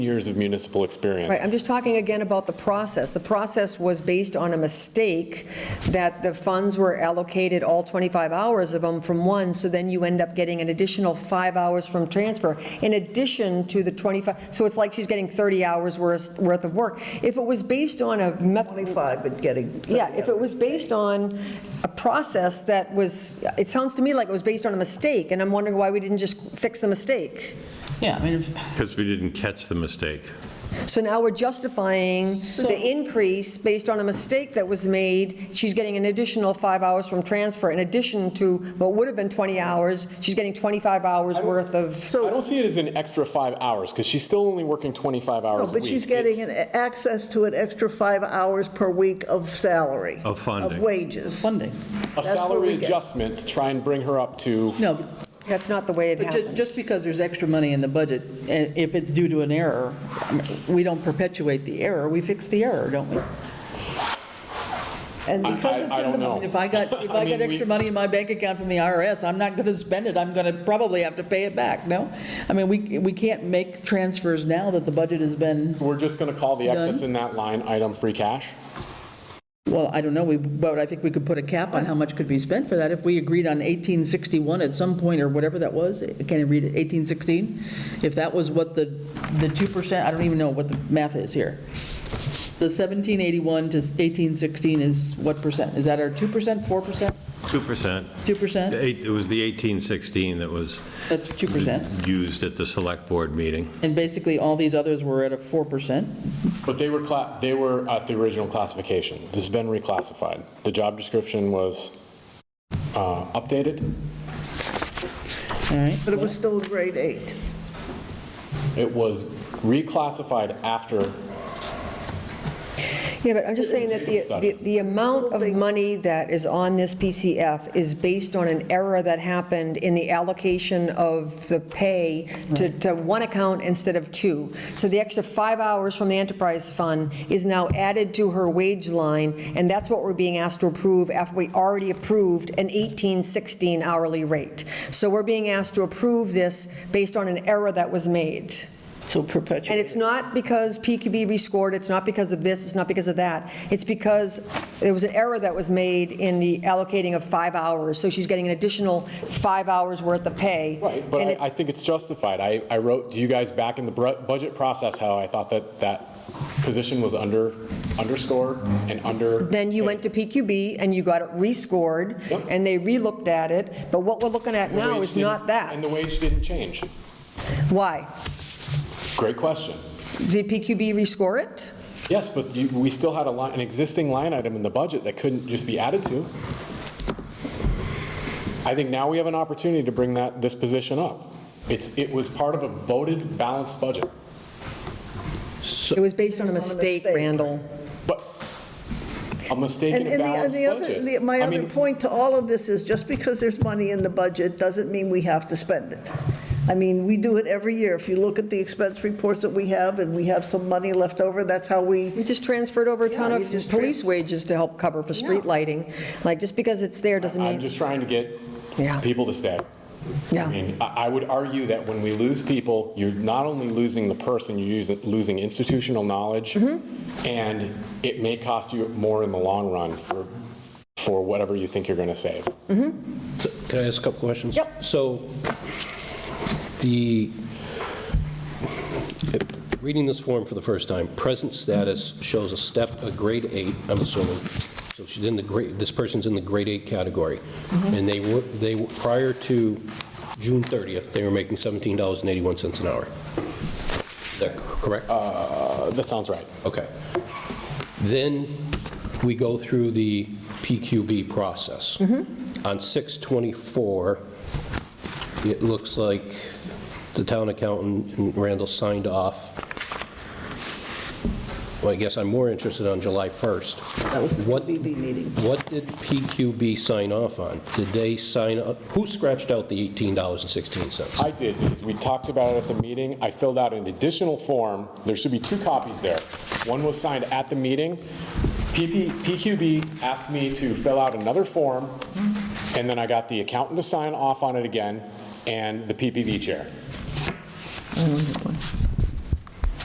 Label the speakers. Speaker 1: years of municipal experience.
Speaker 2: Right, I'm just talking again about the process. The process was based on a mistake that the funds were allocated, all 25 hours of them from one, so then you end up getting an additional five hours from transfer, in addition to the 25, so it's like she's getting 30 hours worth worth of work. If it was based on a method.
Speaker 3: 25, but getting.
Speaker 2: Yeah, if it was based on a process that was, it sounds to me like it was based on a mistake, and I'm wondering why we didn't just fix the mistake.
Speaker 4: Yeah, I mean, if-
Speaker 5: Because we didn't catch the mistake.
Speaker 2: So now we're justifying the increase based on a mistake that was made. She's getting an additional five hours from transfer in addition to what would have been 20 hours. She's getting 25 hours worth of,
Speaker 1: I don't see it as an extra five hours, because she's still only working 25 hours a
Speaker 3: No,
Speaker 1: week.
Speaker 3: but she's getting
Speaker 1: It's-
Speaker 3: an access to an extra five hours per week of salary.
Speaker 5: Of funding.
Speaker 3: Of wages.
Speaker 4: Sunday.
Speaker 1: A
Speaker 3: that's what we
Speaker 1: salary
Speaker 3: get.
Speaker 1: adjustment to try and bring her up to,
Speaker 4: No, but
Speaker 2: that's not the way it
Speaker 4: But ju-
Speaker 2: happened.
Speaker 4: just because there's extra money in the budget, and if it's due to an error, I mean, we don't perpetuate the error, we fix the error, don't we?
Speaker 3: And
Speaker 1: I-
Speaker 3: because
Speaker 1: I
Speaker 3: it's in
Speaker 1: don't
Speaker 3: the,
Speaker 1: know.
Speaker 4: If I got, if I
Speaker 1: mean,
Speaker 4: got
Speaker 1: we-
Speaker 4: extra money in my bank account from the IRS, I'm not going to spend it, I'm going to probably have to pay it back, no? I mean, we, we can't make transfers now that the budget has been,
Speaker 1: we're just going to call the excess
Speaker 4: Done.
Speaker 1: in that line item free cash?
Speaker 4: well, I don't know, we- but I think we could put a cap on how much could be spent for that. If we agreed on 1861 at some point, or whatever that was, can I read it, 1816? If that was what the, the 2%, I don't even know what the math is here. The 1781 to 1816 is what percent? Is that our 2%, 4%,
Speaker 5: 2%.
Speaker 4: 2%?
Speaker 5: The eight- It was the 1816 that was
Speaker 4: That's 2%.
Speaker 5: used at the select board meeting.
Speaker 4: And basically, all these others were at a 4%.
Speaker 1: But they were, cla- they were at the original classification. This has been reclassified. The job description was uh, updated.
Speaker 4: All right,
Speaker 3: but it was still grade eight.
Speaker 1: It was reclassified after
Speaker 2: Yeah, but I'm just saying that the, the- the amount of money that is on this PCF is based on an error that happened in the allocation of the pay to, to one account instead of two. So the extra five hours from the enterprise fund is now added to her wage line, and that's what we're being asked to approve after we already approved an 1816 hourly rate. So we're being asked to approve this based on an error that was made.
Speaker 4: so perpetual.
Speaker 2: And it's not because PQB rescored, it's not because of this, it's not because of that. It's because there was an error that was made in the allocating of five hours, so she's getting an additional five hours worth of pay.
Speaker 1: Right, but
Speaker 2: And
Speaker 1: I, I
Speaker 2: it's-
Speaker 1: think it's justified. I, I wrote to you guys back in the bru- budget process how I thought that that position was under, underscore and under.
Speaker 2: Then you went to PQB and you got it rescored,
Speaker 1: Yep.
Speaker 2: and they relooked at it, but what we're looking at
Speaker 1: The
Speaker 2: now
Speaker 1: wage
Speaker 2: is
Speaker 1: didn't-
Speaker 2: not that.
Speaker 1: And the wage didn't change.
Speaker 2: Why?
Speaker 1: Great question.
Speaker 2: Did PQB rescore it?
Speaker 1: Yes, but you, we still had a line, an existing line item in the budget that couldn't just be added to. I think now we have an opportunity to bring that, this position up. It's, it was part of a voted balanced budget.
Speaker 2: It was based on a mistake,
Speaker 3: mistake.
Speaker 2: Randall.
Speaker 1: But a mistake in
Speaker 3: And
Speaker 1: a
Speaker 3: and the, and
Speaker 1: balanced
Speaker 3: the other,
Speaker 1: budget.
Speaker 3: the- my
Speaker 1: I
Speaker 3: other
Speaker 1: mean,
Speaker 3: point to all of this is, just because there's money in the budget, doesn't mean we have to spend it. I mean, we do it every year. If you look at the expense reports that we have, and we have some money left over, that's how we,
Speaker 2: We just transferred over a ton
Speaker 3: Yeah,
Speaker 2: of
Speaker 3: you just
Speaker 2: police
Speaker 3: trans-
Speaker 2: wages to help cover for street
Speaker 3: Yeah.
Speaker 2: lighting. Like, just because it's there doesn't
Speaker 1: I'm
Speaker 2: mean,
Speaker 1: just trying to get
Speaker 2: Yeah.
Speaker 1: people to stay. I
Speaker 2: yeah.
Speaker 1: mean, I I would argue that when we lose people, you're not only losing the person, you're using- losing institutional knowledge, and it may cost you more in the long run for, for whatever you think you're going to save.
Speaker 6: Can I ask a couple questions?
Speaker 2: Yep.
Speaker 6: So the, reading this form for the first time, present status shows a step, a grade eight, I'm assuming. So she's in the grade, this person's in the grade eight category. And they were, they, were- prior to June 30th, they were making $17.81 an hour. Is that correct?
Speaker 1: Uh, That sounds right.
Speaker 6: Okay. Then we go through the PQB process. On 624, it looks like the town accountant and Randall signed off. Well, I guess I'm more interested on July 1st.
Speaker 3: that was the
Speaker 6: What-
Speaker 3: BB meeting.
Speaker 6: What did PQB sign off on? Did they sign up, who scratched out the $18.16?
Speaker 1: I did, because we talked about it at the meeting. I filled out an additional form. There should be two copies there. One was signed at the meeting. PP PQB asked me to fill out another form, and then I got the accountant to sign off on it again, and the PPB chair.